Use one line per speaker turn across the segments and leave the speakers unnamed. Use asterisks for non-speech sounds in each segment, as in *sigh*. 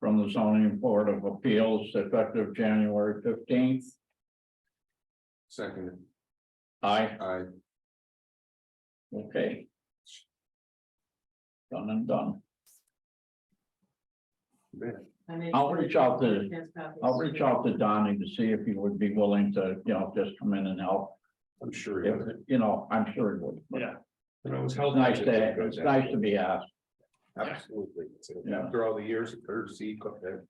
from the zoning board of appeals effective January fifteenth.
Second,
Aye,
I,
okay. Done and done.
I make-
I'll reach out to-
Yes, copies.
I'll reach out to Donnie to see if he would be willing to, you know, just come in and help.
I'm sure. he
If,
would.
you know, I'm sure he would.
Yeah.
You know, it's
It's nice to, it's nice to be asked.
Absolutely. So
Yeah.
After all the years of courtesy. cook that.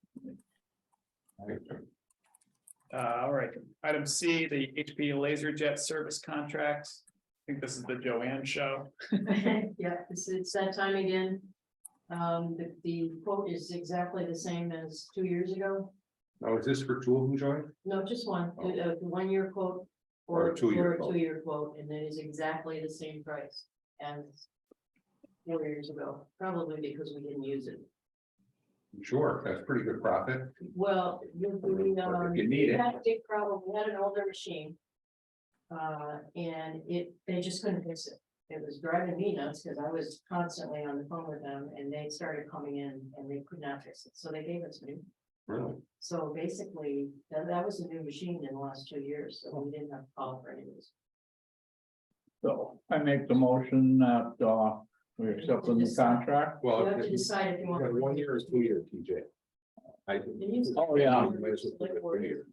Uh, all right, item C, the HP LaserJet service contract. I think this is the Joanne show.
*laughs* Yeah, it's, it's that time again. Um, the, the quote is exactly the same as two years ago.
Now, oh, is this for two of them, Joy?
No, just one,
Oh.
a, one year quote.
Or a two-year
or a
quote.
Two-year quote, and it is exactly the same price as four years ago, probably because we didn't use it.
Sure, that's pretty good profit.
Well, you, we, um,
If you need
we
it.
had a big problem, we had an older machine. Uh, and it, they just couldn't fix it. It was driving me nuts because I was constantly on the phone with them and they started coming in and they could not fix it, so they gave it to me.
Really?
So basically, that, that was a new machine in the last two years, so we didn't have to call for any of this.
So I make the motion that, uh, we accept the new contract.
You
Well.
have to
if-
decide if you
yeah,
want.
One year is two years, TJ. I.
Oh, yeah.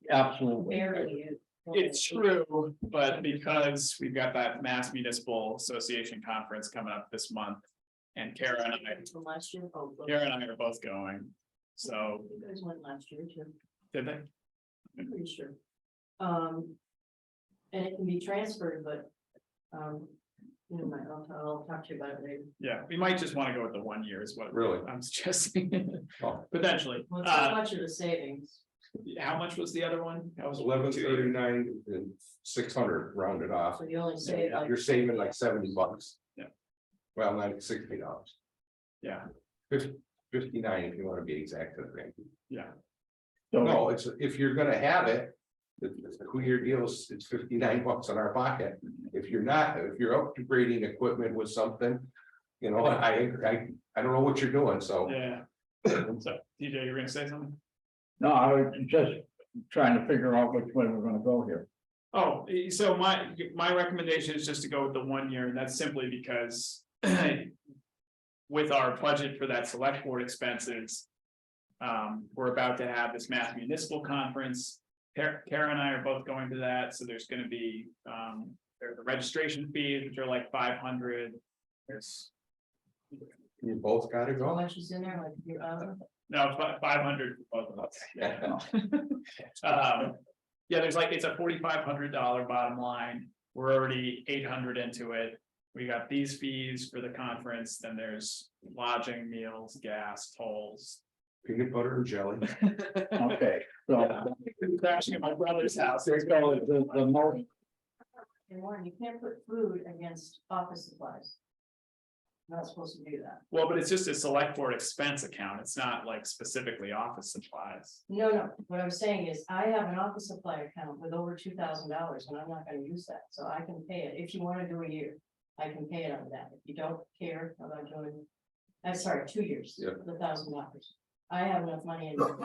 Absolutely.
Barely. used.
It's true, but because we've got that Mass Municipal Association Conference coming up this month. And Kara and I,
From last year, oh. look.
Kara and I are both going. So,
You guys went last year too.
did they?
I'm pretty sure. Um. And it can be transferred, but, um, you know, my, I'll, I'll talk to you about it later.
Yeah, we might just want to go with the one year is what
Really?
I'm suggesting,
Oh,
*laughs* potentially.
Well, it's not
Uh,
much of a savings.
how much was the other one? That was
eleven thirty-nine and six hundred rounded off.
So you only save like.
You're saving like seventy bucks.
Yeah.
Well, not sixty dollars,
Yeah,
fifty-nine if you want to be exact, I think.
yeah.
So
No, it's, if you're gonna have it, the, the two-year deals, it's fifty-nine bucks in our pocket. If you're not, if you're upgrading equipment with something, you know, I, I, I don't know what you're doing, so. *laughs*
Yeah, so DJ, you're gonna say something?
no, I was just trying to figure out which way we're gonna go here.
Oh, eh, so my, my recommendation is just to go with the one year, and that's simply because. *clears throat* With our budget for that select board expenses. Um, we're about to have this mass municipal conference. Kara Kara and I are both going to that, so there's gonna be, um, there are the registration fees, which are like five hundred. There's,
You both gotta
How
go.
much is in there, like, you're, uh,
no, five hundred for both of us.
Yeah.
*laughs* Um, yeah, there's like, it's a forty-five hundred dollar bottom line, we're already eight hundred into it. We got these fees for the conference, then there's lodging, meals, gas, tolls.
Peanut butter and jelly.
Okay, so
Crashing at my brother's house,
there's going, the, the most,
and Warren, you can't put food against office supplies. You're Not supposed to do that.
well, but it's just a select board expense account, it's not like specifically office supplies.
No, no, what I'm saying is I have an office supply account with over two thousand dollars and I'm not gonna use that, so I can pay it. If you wanna do a year, I can pay it on that. If you don't care about doing. I'm sorry, two years,
Yeah.
the thousand dollars. I have enough money in. But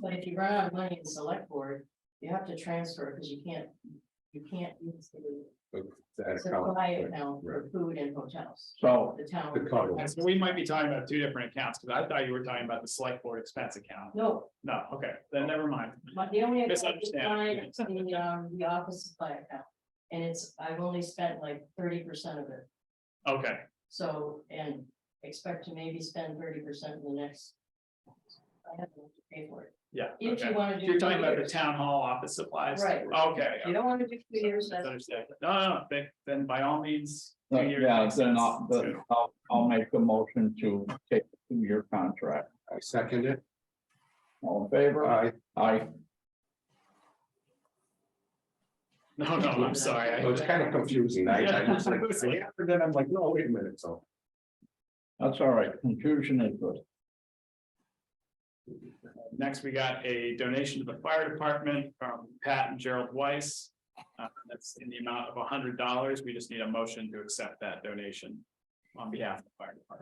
but if you run out of money in select board, you have to transfer because you can't, you can't use the
That account.
supply account for food and hotels.
so,
The town.
The cover.
And so we might be talking about two different accounts, because I thought you were talking about the select board expense account,
No,
no, okay, then never mind.
But the only. account is mine,
Misunderstanding.
it's The, um, the office supply account, and it's, I've only spent like thirty percent of it,
Okay,
so, and expect to maybe spend thirty percent in the next. I have to pay for it,
yeah.
if
okay.
you wanna do.
You're talking
two
about the
years.
town hall office supplies?
Right.
Okay.
If You don't wanna do two years,
That's
that's,
understandable. No, no, no, then, then by all means. two years
yeah,
makes
then
sense,
I'll, then
too.
I'll, I'll make the motion to take the two-year contract.
I second it.
All in favor?
I,
Aye.
*laughs* No, no, I'm sorry.
it
I-
was kind of confusing. I, I was like,
*laughs* Yeah. *laughs*
I have to- then I'm like, no, wait a minute, so.
That's all right. Confusion is good.
Next, we got a donation to the fire department from Pat and Gerald Weiss. Uh, That's in the amount of hundred dollars. We just need a motion to accept that donation on behalf of the fire department.